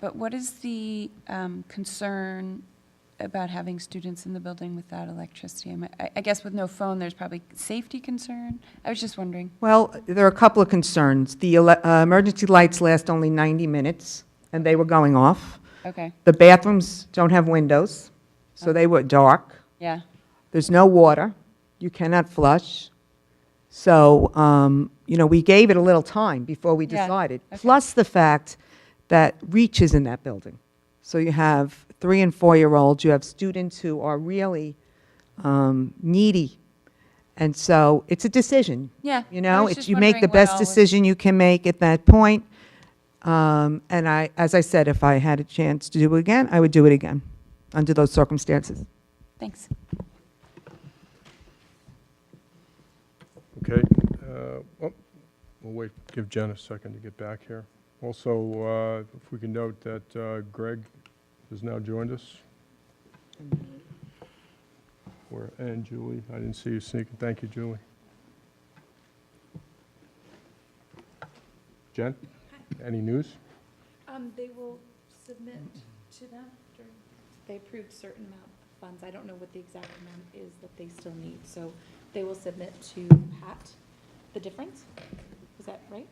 But what is the um, concern about having students in the building without electricity? I mean, I I guess with no phone, there's probably safety concern. I was just wondering. Well, there are a couple of concerns. The ele- uh, emergency lights last only 90 minutes, and they were going off. Okay, The bathrooms don't have windows, so they were dark. yeah, There's no water. You cannot flush. So, um, you know, we gave it a little time before we Yeah, decided. okay. Plus the fact that Reach is in that building. So you have three and four year olds, you have students who are really um, needy. And so it's a decision. yeah. You I know, was it's, just you make wondering the what best all was- decision you can make at that point. Um, and I, as I said, if I had a chance to do it again, I would do it again under those circumstances. Thanks. Okay, uh, oh, we'll wait, give Jen a second to get back here. Also, uh, if we can note that uh, Greg has now joined us. Or- And Julie, I didn't see you sneaking, thank you, Julie. Jen, any news? Um, they will submit to them during, they approved certain amount of funds. I don't know what the exact amount is that they still need, so they will submit to Pat the difference. Is that right?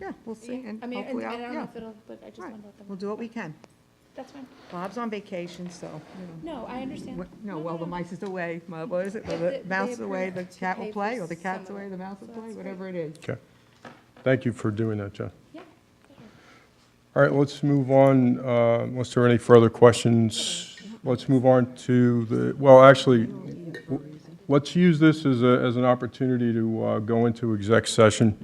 Yeah, we'll Yeah. I mean, and I don't know if it'll, but I just Right. wanted to let them. We'll know. do what we can. That's fine. Bob's on vacation, so. you know. No, I understand. Wh- No, well, the mice is away, My- what is it, the They- they- mouse is they away, the approved to cat will pay for play, or the some cat's of away, it, the mouse will so play, that's whatever it is. Okay, thank you for doing that, Jen. Yeah. All right, let's move on, uh, unless there are any further questions. Let's move on to the, well, actually, w- let's use this as a, as an opportunity to uh, go into exec session.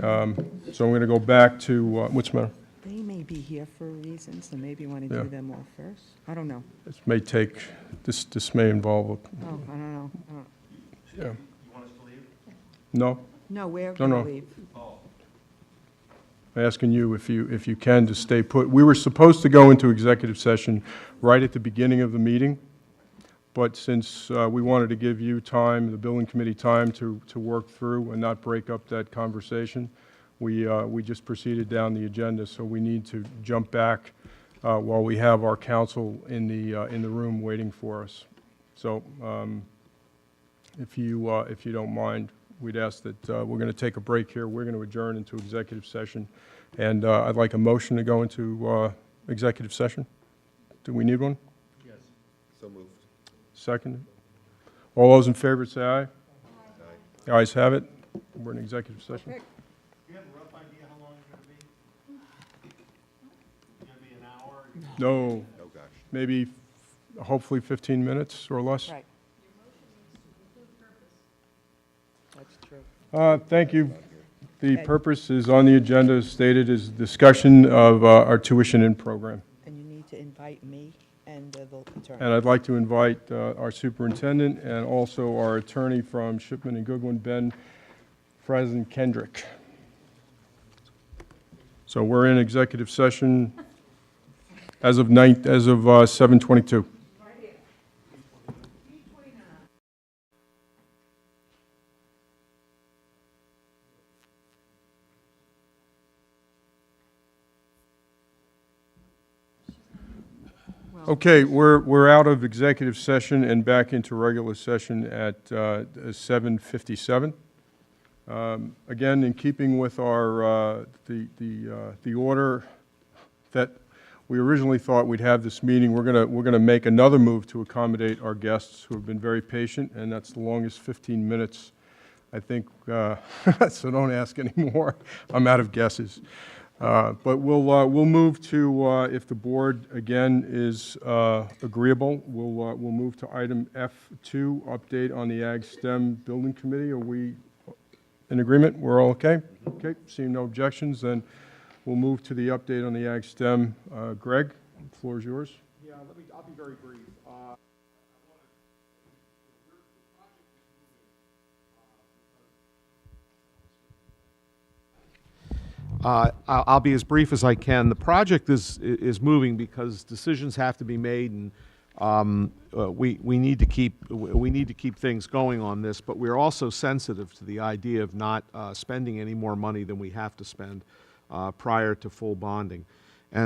Um, So I'm going to go back to, uh, what's the matter? They may be here for reasons, so maybe you want Yeah. to do them all first. I don't know. This may take, this, this may involve, Oh, I don't know. I don't- a- yeah. No? No, we're going Don't know. to leave. I'm asking you if you, if you can, to stay put. We were supposed to go into executive session right at the beginning of the meeting, but since uh, we wanted to give you time, the building committee time to, to work through and not break up that conversation, we, uh, we just proceeded down the agenda, so we need to jump back uh, while we have our counsel in the, uh, in the room waiting for us. So um, if you, uh, if you don't mind, we'd ask that, uh, we're going to take a break here. We're going to adjourn into executive session. And uh, I'd like a motion to go into uh, executive session. Do we need one? So moved. Second? All those in favor say aye. Aye. Ayes have it. We're in executive session. Do you have a rough idea how long it's gonna be? Gonna be an hour? No, Oh, gosh. maybe, hopefully 15 minutes or less. Right. That's true. Uh, Thank you. The purpose is on the agenda as stated is discussion of uh, our tuition in program. And you need to invite me and uh, the attorney. And I'd like to invite uh, our superintendent and also our attorney from Shipman and Goodwin, Ben Frazen Kendrick. So we're in executive session as of nine, as of uh, 7:22. Okay, we're, we're out of executive session and back into regular session at uh, 7:57. Um, Again, in keeping with our, uh, the, the, uh, the order that we originally thought we'd have this meeting, we're gonna, we're gonna make another move to accommodate our guests who have been very patient, and that's the longest 15 minutes, I think, uh, so don't ask anymore. I'm out of guesses. Uh, But we'll, uh, we'll move to, uh, if the board, again, is uh, agreeable, we'll, uh, we'll move to item F2, update on the Ag STEM Building Committee. Are we in agreement? We're all okay? Okay, seeing no objections, then we'll move to the update on the Ag STEM. Uh, Greg, the floor is yours. Yeah, let me, I'll be very brief. Uh, Uh, I'll I'll be as brief as I can. The project is, is moving because decisions have to be made, and um, uh, we, we need to keep, we need to keep things going on this, but we're also sensitive to the idea of not uh, spending any more money than we have to spend uh, prior to full bonding.